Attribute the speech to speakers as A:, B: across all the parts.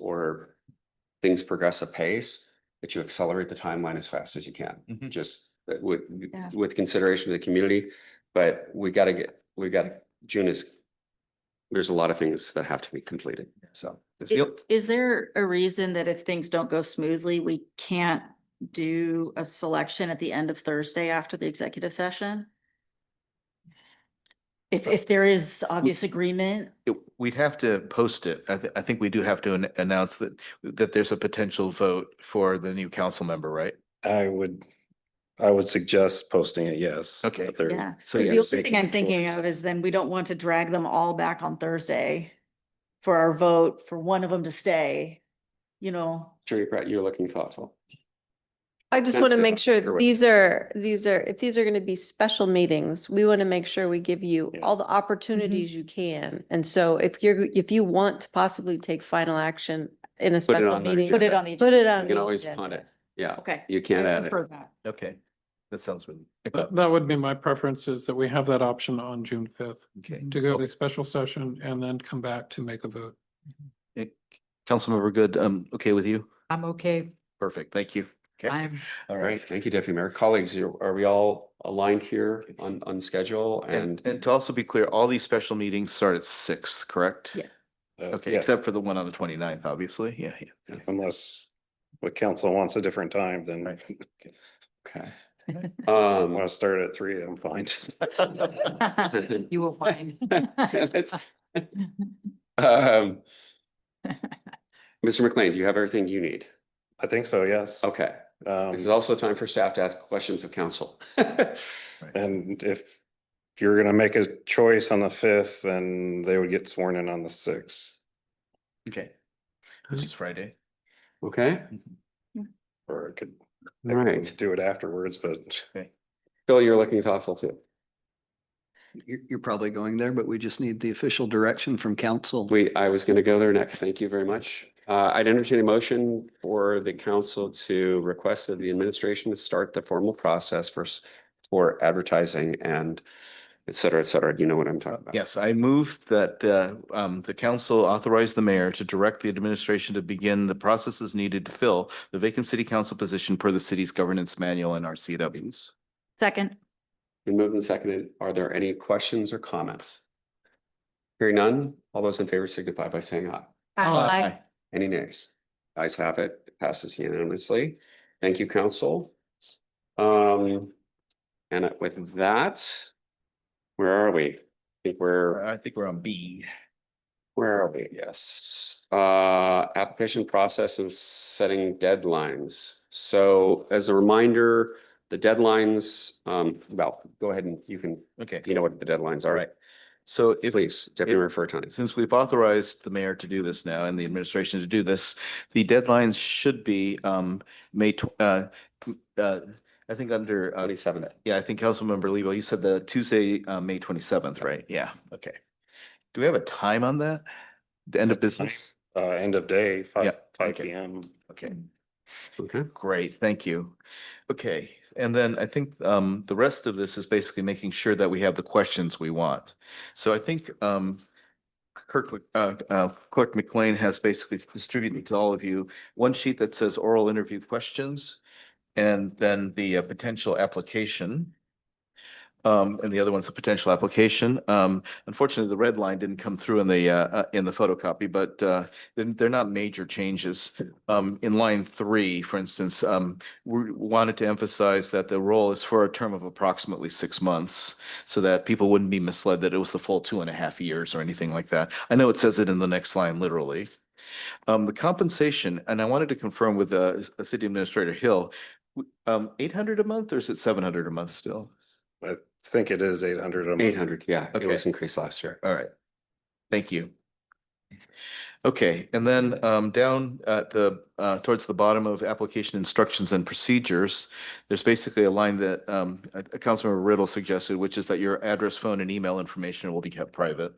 A: or things progress apace, that you accelerate the timeline as fast as you can.
B: Mm-hmm.
C: Mhm.
A: Just that with,
D: Yeah.
A: with consideration to the community, but we gotta get, we gotta, June is, there's a lot of things that have to be completed, so. this-
D: I- Is there a reason that if things don't go smoothly, we can't do a selection at the end of Thursday after the executive session? If, if there is obvious agreement,
C: it- We'd have to post it. I, thi- I think we do have to an- announce that, that there's a potential vote for the new council member, right?
B: I would, I would suggest posting it, yes.
C: Okay.
B: but there-
D: yeah.
C: So
D: The
B: Yeah,
D: only
B: so you
D: thing
B: can
D: I'm thinking
B: force.
D: of is then we don't want to drag them all back on Thursday for our vote, for one of them to stay, you know?
A: Jerry Brett, you're looking thoughtful.
E: I just
A: That's
E: want to
A: it.
E: make
A: Either
E: sure
A: way.
E: these are, these are, if these are going to be special meetings, we want to make sure we give you
B: Yeah.
E: all the opportunities you can. And so if you're, if you want to possibly take final action in a special
A: on the
E: meeting,
D: Put it on each.
E: put it
A: You
E: on. the
A: can always
E: agenda.
A: punt it, yeah,
D: Okay.
A: you
D: I
A: can't add it.
D: prefer that.
C: Okay, that sounds really.
F: That, that would be my preference is that we have that option on June fifth
C: Okay.
F: to go to a special session and then come back to make a vote.
C: Eh, Councilmember Good, um, okay with you?
G: I'm okay.
C: Perfect, thank you.
G: I'm,
C: All
A: All right, thank you, Deputy Mayor. Colleagues, are are we all aligned here on, on schedule
C: And,
A: and?
C: and to also be clear, all these special meetings start at six, correct?
D: Yeah.
B: uh,
C: Okay,
B: yes,
C: except for the one on the 29th, obviously. Yeah, yeah.
B: Unless what council wants a different time, then
A: Okay.
B: I
A: Um,
B: want to start at three, I'm fine.
G: you will find.
A: let's- um, Mr. McLean, do you have everything you need?
B: I think so, yes.
A: Okay,
B: Um,
A: this is also time for staff to ask questions of council.
B: and if you're gonna make a choice on the fifth, then they would get sworn in on the sixth.
C: Okay. Which is Friday.
A: Okay,
B: Or it could,
A: all
B: they
A: right.
B: could do it afterwards, but
A: Phil, you're looking thoughtful too.
H: You're, you're probably going there, but we just need the official direction from council.
A: We, I was going to go there next. Thank you very much. Uh, I'd entertain a motion for the council to request that the administration start the formal process for, s- for advertising and et cetera, et cetera. You know what I'm talking about.
C: Yes, I move that uh, um, the council authorize the mayor to direct the administration to begin the processes needed to fill the vacant city council position per the city's governance manual and RCWs.
D: Second,
A: Been moved and seconded. Are there any questions or comments? Hearing none, all those in favor signify by saying aye.
D: Aye.
A: Any nays? Ayes have it, It passes unanimously. Thank you, council. Um, and with that, where are we? I think we're.
C: I think we're on B.
A: Where are we? Yes, uh, application process and setting deadlines. So as a reminder, the deadlines, um, well, go ahead and you can,
C: Okay,
A: you know what the deadlines
C: all
A: are.
C: right. So if,
A: Please, Deputy
C: If-
A: Mayor Furtone.
C: since we've authorized the mayor to do this now and the administration to do this, the deadlines should be um, May, tw- uh, uh, I think under, uh,
A: Twenty-seven.
C: yeah, I think Councilmember Lebo, you said the Tuesday, uh, May twenty-seventh, right? Yeah, okay. Do we have a time on that? The end of business?
B: uh, end of day, five,
C: Yeah,
B: five
C: okay.
B: P M.
C: Okay,
A: Okay,
C: great, thank you. Okay, and then I think um the rest of this is basically making sure that we have the questions we want. So I think um Kirk, Mc- uh, uh, Clerk McLean has basically distributed to all of you one sheet that says oral interview questions and then the uh, potential application. Um, and the other one's the potential application. Um, unfortunately, the red line didn't come through in the uh, uh, in the photocopy, but uh they're, they're not major changes. Um, in line three, for instance, um, we wanted to emphasize that the role is for a term of approximately six months so that people wouldn't be misled that it was the full two and a half years or anything like that. I know it says it in the next line literally. Um, the compensation, and I wanted to confirm with, uh, S- uh, City Administrator Hill, w- um, eight hundred a month or is it seven hundred a month still?
B: I think it is eight hundred.
A: eight hundred, yeah, it
C: Okay.
A: was increased last year.
C: All right. Thank you. Okay, and then um down at the uh towards the bottom of application instructions and procedures, there's basically a line that um uh, Councilmember Riddle suggested, which is that your address, phone and email information will be kept private.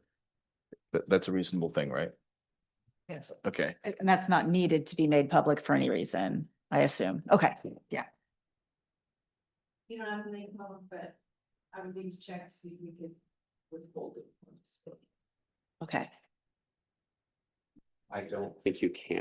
C: That that's a reasonable thing, right?
D: Yes.
C: Okay,
D: And that's not needed to be made public for any reason, I assume. Okay.
I: You don't have to make one, but I would need to check, to see if we could withhold it. from the state.
D: Okay.
A: I don't think you can.